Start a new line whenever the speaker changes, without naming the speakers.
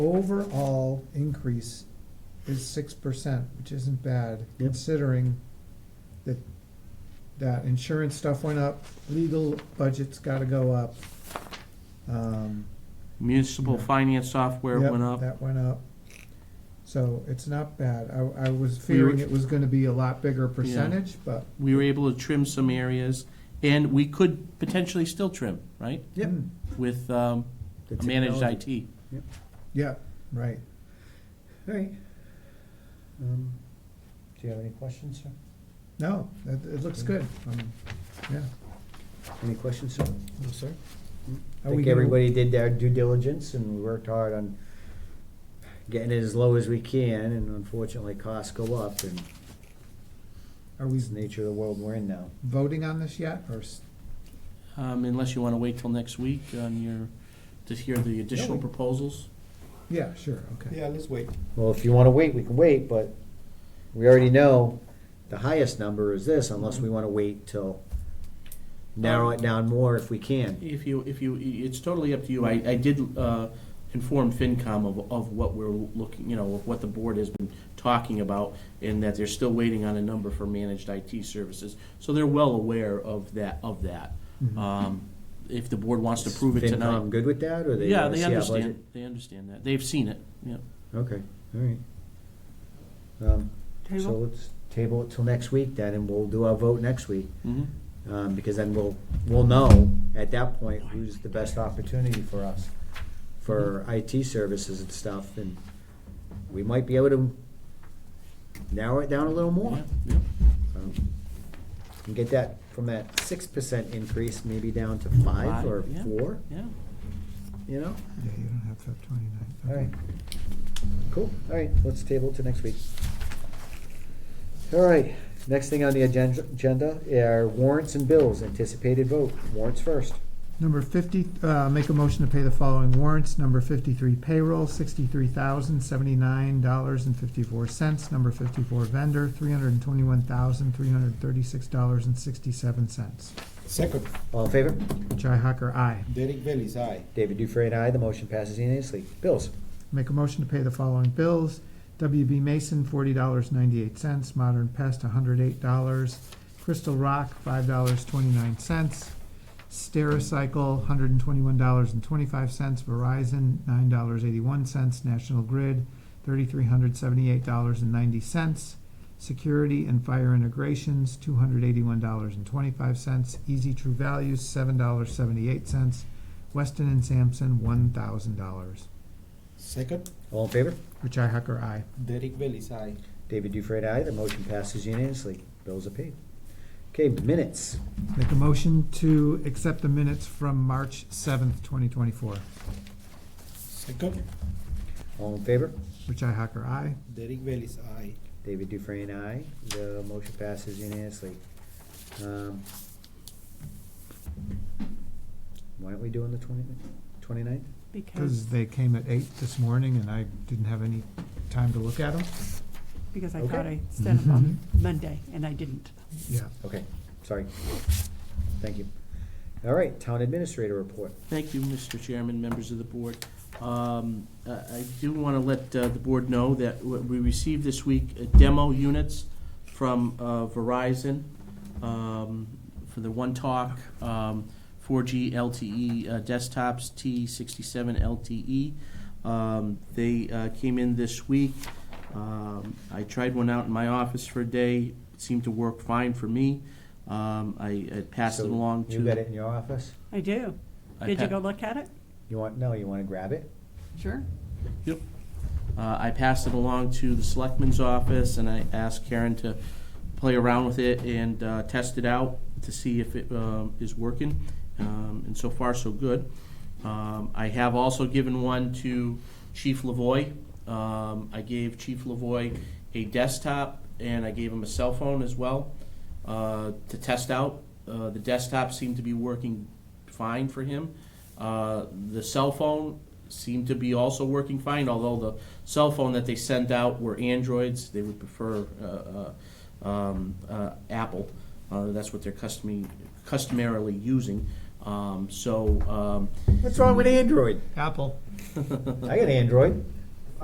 overall increase is six percent, which isn't bad,
Yep.
considering that, that insurance stuff went up, legal budget's gotta go up. Um,
Municipal
Yeah.
finance software
yep,
went up.
That went up. So it's not bad. I, I was
We were-
fearing it was gonna be a lot bigger percentage, but.
We were able to trim some areas, and we could potentially still trim, right?
Yep.
Hmm,
With um,
The
a managed
technology.
IT.
Yeah, right.
All right. Um, Do you have any questions, sir?
No, it, it looks good. Um, yeah.
Any questions, sir?
No, sir.
I think everybody did their due diligence and we worked hard on getting it as low as we can, and unfortunately, costs go up, and
Are we
it's the nature of the world we're in now.
voting on this yet, or s-
Um, Unless you want to wait till next week on your, to hear the additional
we-
proposals.
Yeah, sure, okay.
Yeah, let's wait.
Well, if you wanna wait, we can wait, but we already know the highest number is this, unless we wanna wait till narrow it down more if we can.
If you, if you, it's totally up to you. I, I did uh, inform FinCom of, of what we're looking, you know, of what the board has been talking about, and that they're still waiting on a number for managed IT services. So they're well aware of that, of that.
Mm-hmm.
Um, If the board wants to prove it
FinCom
tonight.
good with that, or they
Yeah,
wanna
they
see our
understand, they understand that. They've seen it, yeah.
budget? Okay, all right. Um, So let's table it till next week then, and we'll do our vote next week.
Mhm.
um, because then we'll, we'll know at that point who's the best opportunity for us, for IT services and stuff, and we might be able to narrow it down a little more.
Yeah, yeah.
um, And get that, from that six percent increase, maybe down to five or
Five, yeah.
four,
Yeah,
you know?
Yeah, you don't have to have twenty-nine.
All right. Cool, all right, let's table it to next week. All right, next thing on the agen- agenda are warrants and bills, anticipated vote, warrants first.
Number fifty, uh, make a motion to pay the following warrants. Number fifty-three payroll, sixty-three thousand, seventy-nine dollars and fifty-four cents. Number fifty-four vendor, three hundred and twenty-one thousand, three hundred and thirty-six dollars and sixty-seven cents.
Second,
All in favor?
Jai Hocker, aye.
Derek Bailey's aye.
David Dufray and I, the motion passes unanimously. Bills,
Make a motion to pay the following bills. WB Mason, forty dollars ninety-eight cents, Modern Pest, hundred eight dollars, Crystal Rock, five dollars twenty-nine cents, Stericycle, hundred and twenty-one dollars and twenty-five cents, Verizon, nine dollars eighty-one cents, National Grid, thirty-three hundred seventy-eight dollars and ninety cents, Security and Fire Integrations, two hundred eighty-one dollars and twenty-five cents, Easy True Values, seven dollars seventy-eight cents, Weston and Sampson, one thousand dollars.
Second,
all in favor?
Richi Hacker, aye.
Derek Bailey's aye.
David Dufray and I, the motion passes unanimously. Bills are paid. Okay, minutes.
Make a motion to accept the minutes from March seventh, twenty twenty-four.
Second,
All in favor?
Richi Hacker, aye.
Derek Bailey's aye.
David Dufray and I, the motion passes unanimously. Um, Why aren't we doing the 20 29th?
Because,
Because they came at eight this morning and I didn't have any time to look at them.
because I
Okay.
thought I sent them on Monday, and I didn't.
Yeah.
Okay, sorry. Thank you. All right, town administrator report.
Thank you, Mr. Chairman, members of the board. Um, I I do want to let uh, the board know that w- we received this week uh, demo units from uh, Verizon um, for the One Talk, um, 4G LTE uh, desktops, T67 LTE. E. Um, They uh, came in this week. Um, I tried one out in my office for a day. It seemed to work fine for me. Um, I I passed it
So
along to.
You got it in your office?
I do.
I
Did
pa-
you go look at it?
You want, no, you want to grab it?
Sure.
Uh, I passed it along to the selectman's office, and I asked Karen to play around with it and uh, test it out to see if it um, is working. Um, and so far, so good. Um, I have also given one to Chief Lavoy. Um, I gave Chief Lavoy a desktop, and I gave him a cell phone as well uh, to test out. Uh, the desktop seemed to be working fine for him. Uh, the cell phone seemed to be also working fine, although the cell phone that they sent out were Androids. They would prefer uh, uh, um, uh, Apple. Uh, that's what they're customary, customarily using.
Um, So, um,
What's wrong with Android?
Apple.
I got Android.